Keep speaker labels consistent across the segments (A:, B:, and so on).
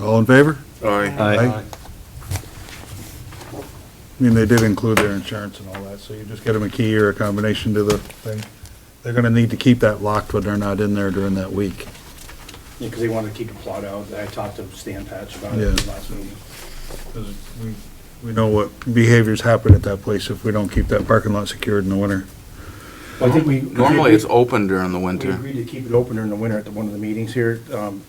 A: All in favor?
B: Aye.
A: Aye. I mean, they did include their insurance and all that, so you just get them a key or a combination to the thing. They're gonna need to keep that locked when they're not in there during that week.
C: Yeah, because they wanted to keep it plowed out. I talked to Stan Patch about
A: Yeah.
C: it last meeting.
A: 'Cause we- We know what behaviors happen at that place if we don't keep that parking lot secured in the winter.
C: Well, I think we.
B: Normally, it's open during the
C: We
B: winter.
C: agreed to keep it open during the winter at the- one of the meetings here, um,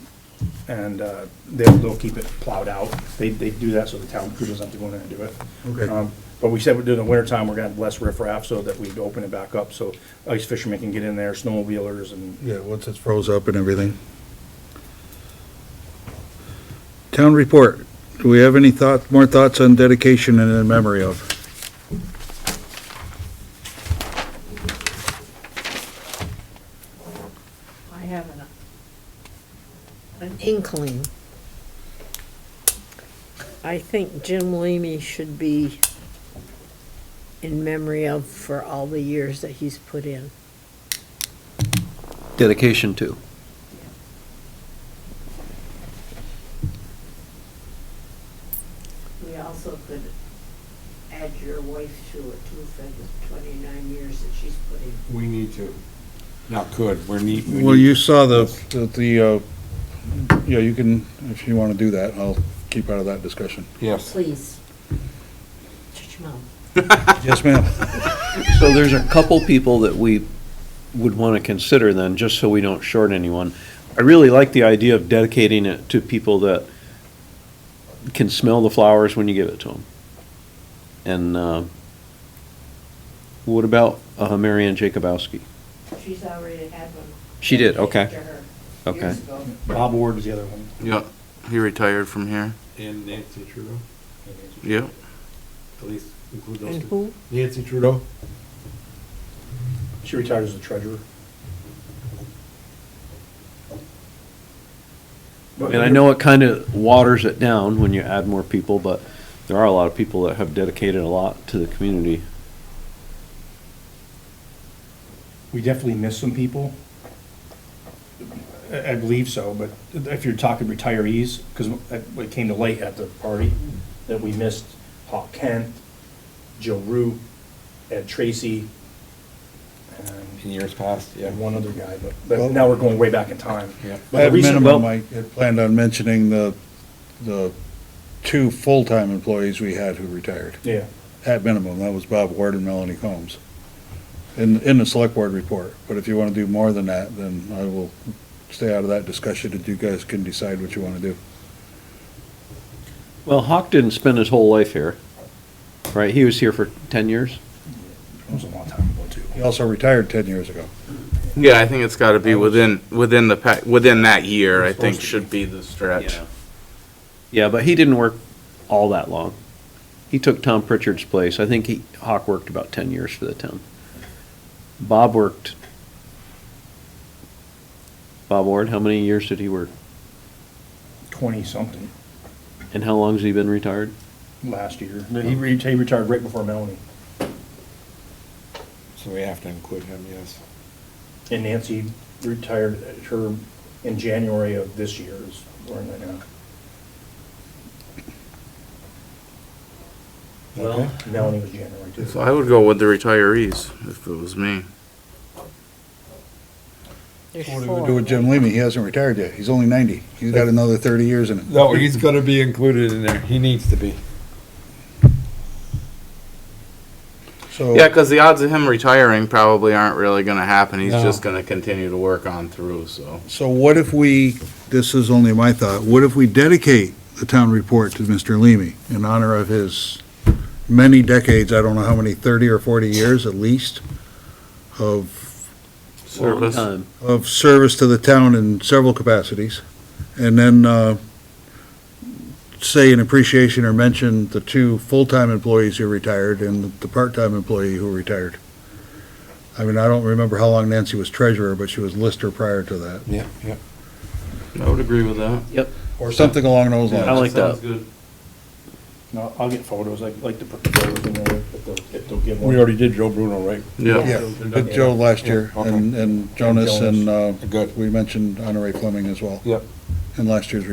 C: and uh, they'll, they'll keep it plowed out. They, they do that so the town crew doesn't have to go in there and do it.
A: Okay.
C: Um, But we said we're doing the winter time, we're gonna have less riffraff so that we'd open it back up, so ice fishermen can get in there, snowmobilers and
A: Yeah, once it's froze up and everything. Town report. Do we have any thought, more thoughts on dedication and in memory of?
D: I have an, an inkling. I think Jim Leamy should be in memory of for all the years that he's put in.
E: Dedication to.
D: We also could add your wife to it too, for the twenty-nine years that she's put in.
F: We need to, not could, we're need. we
A: Well,
F: need-
A: you saw the, the- the, uh, yeah, you can, if you want to do that, I'll keep out of that discussion.
F: Yes,
D: Please. Shut your mouth.
A: Yes, ma'am.
E: So there's a couple people that we would want to consider then, just so we don't short anyone. I really like the idea of dedicating it to people that can smell the flowers when you give it to them. And uh, what about uh, Mary Ann Jacobowski?
D: She's already had one.
E: She did, okay,
D: To her
E: okay.
D: years ago.
C: Bob Ward was the other one.
B: Yeah, he retired from here.
F: and Nancy Trudeau,
B: Yeah,
F: at least include those
D: And
F: two.
D: who?
F: Nancy Trudeau?
C: She retired as the treasurer. But-
E: And I know it kind of waters it down when you add more people, but there are a lot of people that have dedicated a lot to the community.
C: We definitely missed some people. I, I believe so, but if you're talking retirees, because it came to light at the party, that we missed Hawk Kent, Joe Root, Ed Tracy,
F: In years past, yeah.
C: and one other guy, but, but now we're going way back in time.
F: Yeah.
C: But the
A: At
C: reason-
A: minimum, I had planned on mentioning the, the two full-time employees we had who retired.
C: Yeah,
A: At minimum, that was Bob Ward and Melanie Combs. In, in the select board report, but if you want to do more than that, then I will stay out of that discussion and you guys can decide what you want to do.
E: Well, Hawk didn't spend his whole life here, right? He was here for 10 years?
C: it was a long time ago too.
A: He also retired ten years ago.
B: yeah, I think it's gotta be within, within the, pa- within that year, I think should be the stretch.
E: Yeah. Yeah, but he didn't work all that long. He took Tom Pritchard's place. I think he, Hawk worked about ten years for the town. Bob worked. Bob Ward, how many years did he work?
C: Twenty-something
E: And how long's he been retired?
C: last year. He re- he retired right before Melanie
F: So we have to include him, yes.
C: and Nancy retired uh, her in January of this year is where I'm at now.
F: Okay.
C: Melanie was January too.
B: So I would go with the retirees if it was me.
D: There's
A: What are we
D: four.
A: gonna do with Jim Leamy? He hasn't retired yet. He's only ninety. He's got another thirty years in it.
F: No, he's gonna be included in there, he needs to be.
A: So,
B: Yeah, cause the odds of him retiring probably aren't really gonna happen. He's
F: No.
B: just gonna continue to work on through, so.
A: so what if we, this is only my thought, what if we dedicate the town report to Mr. Leamy in honor of his many decades, I don't know how many, thirty or forty years at least, of,
B: Service.
E: Long time.
A: of service to the town in several capacities? And then, uh, say in appreciation or mention the two full-time employees who retired and the part-time employee who retired. I mean, I don't remember how long Nancy was treasurer, but she was lister prior to that.
F: Yeah, yeah.
B: I would agree with that.
A: Or something along those
E: I
A: lines.
E: like that.
B: Sounds good.
C: No, I'll get photos, I like to put the photos in there, if they'll, if they'll give one.
F: We already did Joe Bruno, right?
B: Yeah,
A: Yeah, did Joe last year,
F: Yeah, okay.
A: and, and Jonas, and, uh,
F: Good.
A: we mentioned Honoré Fleming as well
F: Yep.
A: in last year's